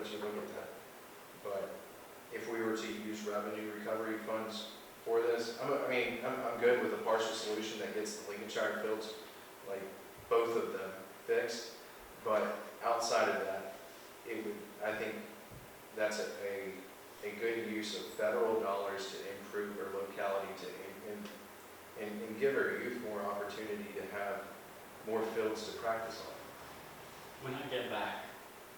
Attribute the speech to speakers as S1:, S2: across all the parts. S1: as you look at that. But if we were to use revenue recovery funds for this, I'm, I mean, I'm, I'm good with a partial solution that gets the Lincolnshire fields, like, both of them fixed. But outside of that, it would, I think that's a, a, a good use of federal dollars to improve our locality to, and, and, and give our youth more opportunity to have more fields to practice on.
S2: When I get back,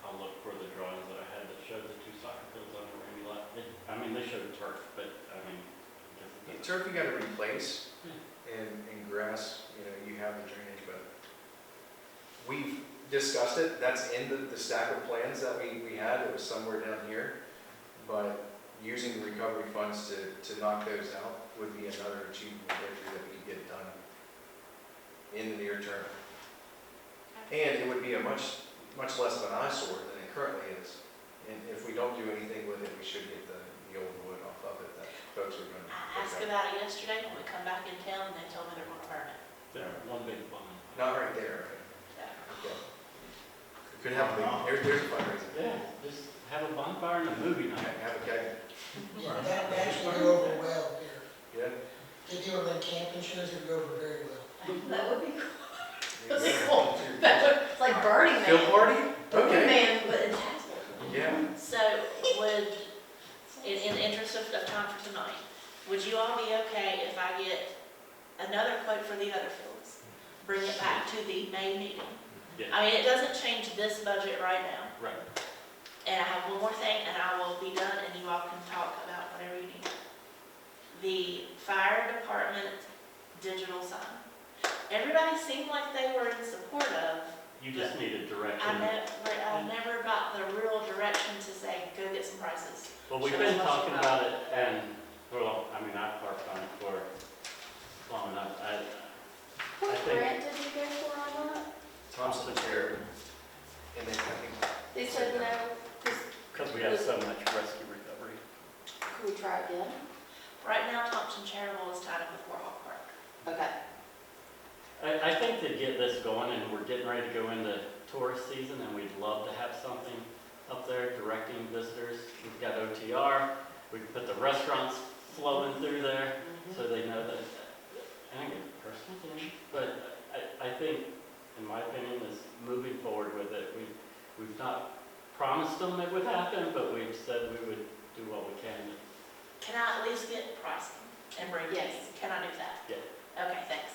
S2: I'll look for the drawings that I had that showed the two soccer fields on the Randy lot. They- I mean, they showed turf, but I mean, I guess it
S1: Yeah,
S2: doesn't.
S1: Turf you gotta replace, and, and grass, you know, you have the drainage, but we've discussed it, that's in the, the stack of plans that we, we had, it was somewhere down here. But using the recovery funds to, to knock those out would be another achievable breakthrough that we could get done in the near term. And it would be a much, much less of an eyesore than it currently is. And if we don't do anything with it, we should get the, the old wood off of it that folks are gonna.
S3: I asked about it yesterday when we come back in town, and they told me they're gonna burn it.
S2: There, one big one.
S1: Not right there,
S3: So,
S1: okay. Could have, a- there's, there's a fundraiser.
S2: Yeah, just have a bonfire and a movie
S1: Okay,
S2: night.
S1: Have a keg,
S4: That, that actually would go over well here.
S1: yeah?
S4: If you were like camping shows, it would go over very well.
S3: That would be cool.
S1: There you go.
S3: Cool. It's like Burning Man.
S1: Field party?
S3: Burning
S1: Okay.
S3: Man, but in Tassau.
S1: Yeah,
S3: So would, in, in the interest of, of time for tonight, would you all be okay if I get another quote for the other fields? Bring it back to the May meeting?
S2: Yeah.
S3: I mean, it doesn't change this budget right now.
S2: Right.
S3: And I have one more thing, and I will be done, and you all can talk about whatever you need. The fire department digital sign. Everybody seemed like they were in support of.
S2: You just need a direction.
S3: I never, I never got the real direction to say, go get some prices.
S2: Well, we've been talking about it and, well, I mean, I've worked on it for long enough. I, I
S5: What
S2: think-
S5: grant did you go for on that?
S1: Thompson Care. And then I think,
S5: They said no, because
S2: because we have so much rescue recovery.
S5: could we try again?
S3: Right now, Thompson Charitable is tied up with Warhol Park.
S5: Okay.
S2: I, I think to get this going, and we're getting ready to go into tourist season, and we'd love to have something up there directing visitors. We've got OTR, we can put the restaurants flowing through there, so they know that, and I get personal opinion, but I, I think, in my opinion, is moving forward with it. We, we've not promised them it would happen, but we've said we would do what we can.
S3: Can I at least get pricing and bring it to you?
S5: Yes.
S3: Can I do that? Okay, thanks.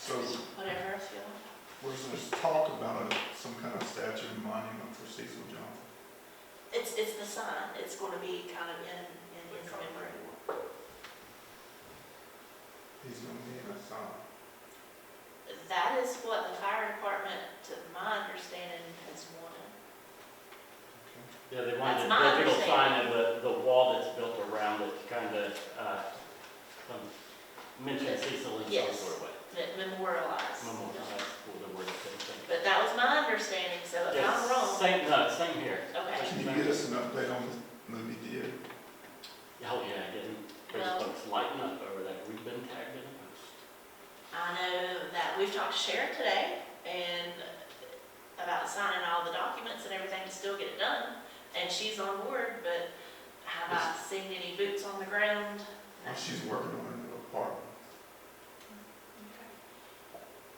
S6: So
S3: Whatever else you want.
S6: was there talk about a- some kind of statue and monument for Cecil Johnson?
S3: It's, it's the sign, it's gonna be kind of in, in his memory.
S6: He's gonna be in a song.
S3: That is what the fire department, to my understanding, has wanted.
S2: Yeah, they wanted
S3: That's my
S2: a digital sign of the, the wall that's built around it, to kind of, uh, um, mention Cecil in some
S3: Yes.
S2: sort of way.
S3: that Memorialized.
S2: Memorialize for the word, same thing.
S3: But that was my understanding, so if I'm
S2: Yes,
S3: wrong,
S2: Same, no, same here.
S3: okay.
S6: Can you get us an update on this movie theater?
S2: Oh, yeah, getting,
S3: Well-
S2: those folks lighting up over there, we've been tagged in the post.
S3: I know that we've talked to Sharon today and about signing all the documents and everything to still get it done. And she's on board, but have I seen any boots on the ground? No.
S6: Or she's working on a new apartment?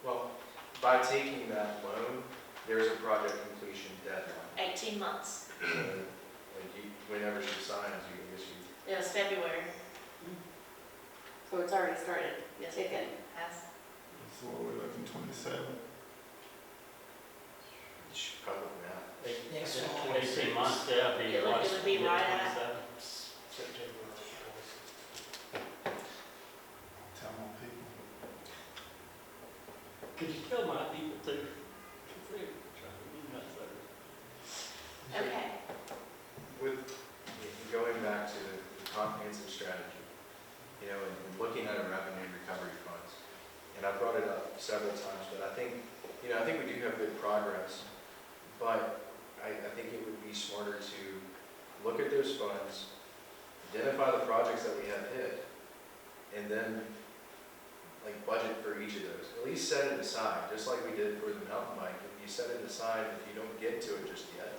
S1: well, by taking that loan, there's a project completion deadline.
S3: Eighteen months.
S1: So, Like you, whenever she signs, you can issue.
S3: It was February.
S5: So it's already started
S3: Yes, it
S5: ticking.
S3: has.
S6: So what, we're looking twenty-seven?
S1: She probably not.
S4: Next
S2: Yeah,
S4: fall.
S2: Eighteen months, yeah, be.
S3: It would- it would be
S2: yeah,
S3: right at-
S2: 27.
S6: Tell my people.
S2: Could you tell my people to, because they're trying to be nuts over there.
S3: Okay.
S1: With, going back to the comprehensive strategy, you know, and and looking at our revenue recovery funds, and I brought it up several times, but I think, you know, I think we do have good progress, but I, I think it would be smarter to look at those funds, identify the projects that we have hit, and then, like, budget for each of those. At least set it aside, just like we did for the mountain bike. If you set it aside, if you don't get to it just yet,